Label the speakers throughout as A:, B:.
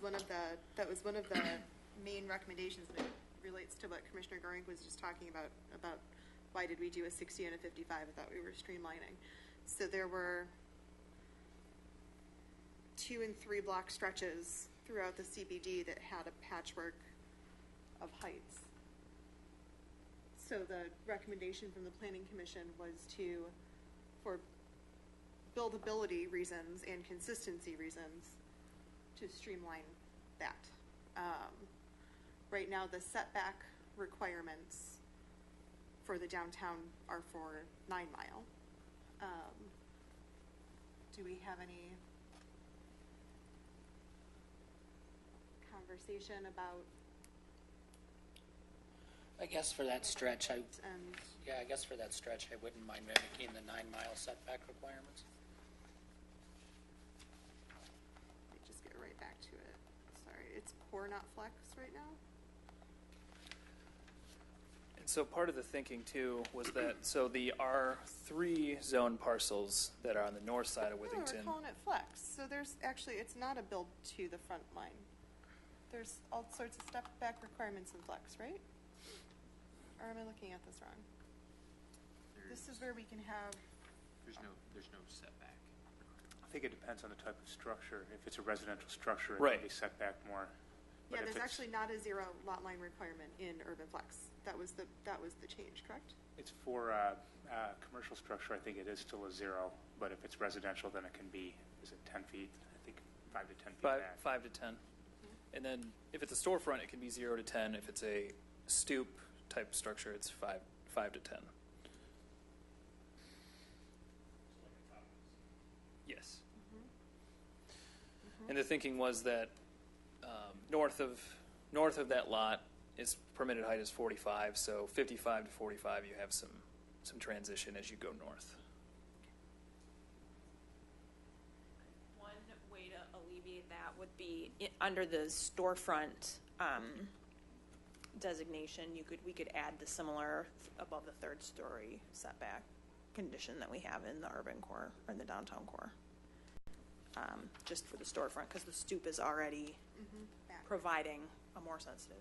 A: one of the, that was one of the main recommendations, and it relates to what Commissioner Goring was just talking about, about why did we do a 60 and a 55? I thought we were streamlining. So there were two and three block stretches throughout the CBD that had a patchwork of heights. So the recommendation from the planning commission was to, for buildability reasons and consistency reasons, to streamline that. Um, Right now, the setback requirements for the downtown are for nine mile. Um, Do we have any conversation about
B: I guess for that stretch, I,
A: and
B: yeah, I guess for that stretch, I wouldn't mind mimicking the nine-mile setback requirements.
A: Let me just get right back to it. Sorry, it's core, not flex right now?
C: And so part of the thinking too was that, so the R3 zone parcels that are on the north side of
A: No, we're
C: Withington.
A: calling it flex. So there's, actually, it's not a build to the front line. There's all sorts of step back requirements in flex, right? Or am I looking at this wrong? This is where we can have,
D: There's no, there's no setback.
E: I think it depends on the type of structure. If it's a residential structure, it
C: Right.
E: can be set back more.
A: yeah,
E: But if
A: there's
E: it's-
A: actually not a zero lot line requirement in urban flex. That was the, that was the change, correct?
E: It's for uh, uh, commercial structure, I think it is still a zero, but if it's residential, then it can be, is it 10 feet? I think 5 to 10 feet
C: Five,
E: back.
C: five to 10. And then if it's a storefront, it can be zero to 10. If it's a stoop type structure, it's five, five to 10. Yes. And the thinking was that um, north of, north of that lot, its permitted height is 45, so 55 to 45, you have some, some transition as you go north.
F: One way to alleviate that would be, i- under the storefront um, designation, you could, we could add the similar th- above the third story setback condition that we have in the urban core, or in the downtown core, Um, just for the storefront, because the stoop is already
A: Mm-hmm. Back.
F: providing a more sensitive.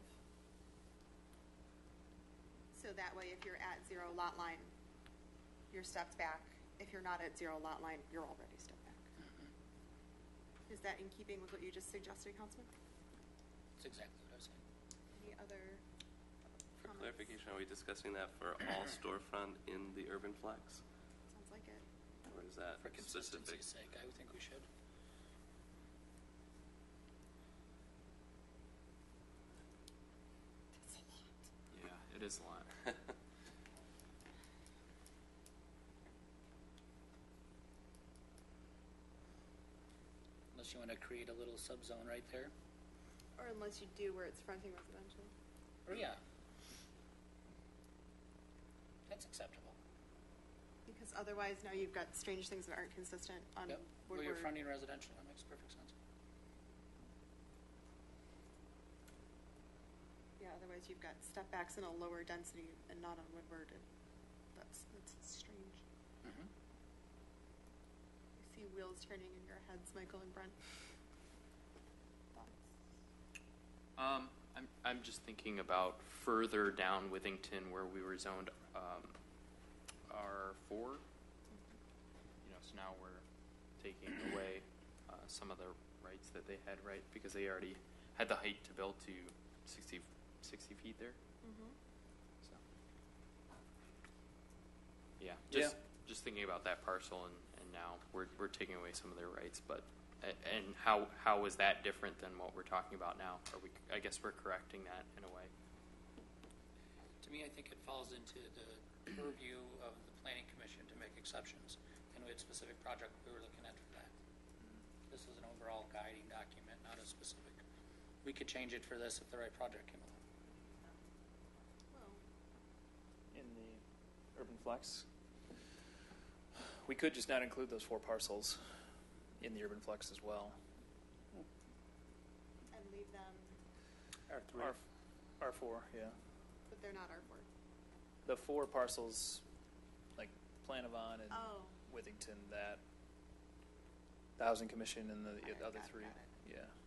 A: So that way, if you're at zero lot line, you're stepped back. If you're not at zero lot line, you're already stepped back. Is that in keeping with what you just suggested, Councilman?
B: That's exactly what I was saying.
A: Any other
G: For
A: comments?
G: clarification, are we discussing that for all storefront in the urban flex?
A: Sounds like it.
G: Or is that
B: For
G: specific?
B: consistency's sake, I would think we should.
A: That's a lot.
D: Yeah, it is a lot.
B: Unless you want to create a little subzone right there.
A: Or unless you do where it's fronting residential.
B: Or, yeah. That's acceptable.
A: Because otherwise, now you've got strange things that aren't consistent on
B: Yep. Well,
A: Woodward.
B: you're fronting residential, that makes perfect sense.
A: Yeah, otherwise you've got step backs in a lower density and not on Woodward. and That's, that's strange.
B: Mhm.
A: I see wheels turning in your heads, Michael and Brent. Thoughts?
D: Um, I'm, I'm just thinking about further down Withington where we were zoned, um, R four. You know, so now we're taking away, uh, some of the rights that they had, right? Because they already had the height to build to 60 60 feet there,
A: Mm-hmm.
D: so. Yeah, just,
C: Yeah.
D: just thinking about that parcel and, and now we're, we're taking away some of their rights, but, a- and how, how is that different than what we're talking about now? Are we, I guess we're correcting that in a way.
B: To me, I think it falls into the purview of the planning commission to make exceptions, and we had a specific project we were looking at for that. This is an overall guiding document, not a specific. We could change it for this if the right project came along.
A: Well,
C: in the urban flex. We could just not include those four parcels in the urban flex as well.
A: and leave them,
E: R3.
C: R four, yeah.
A: but they're not our board.
C: The four parcels, like Planavon and
A: Oh.
C: Withington, that the housing commission and the
A: Got it,
C: other
A: got it,
C: three.
A: got it.
C: Yeah.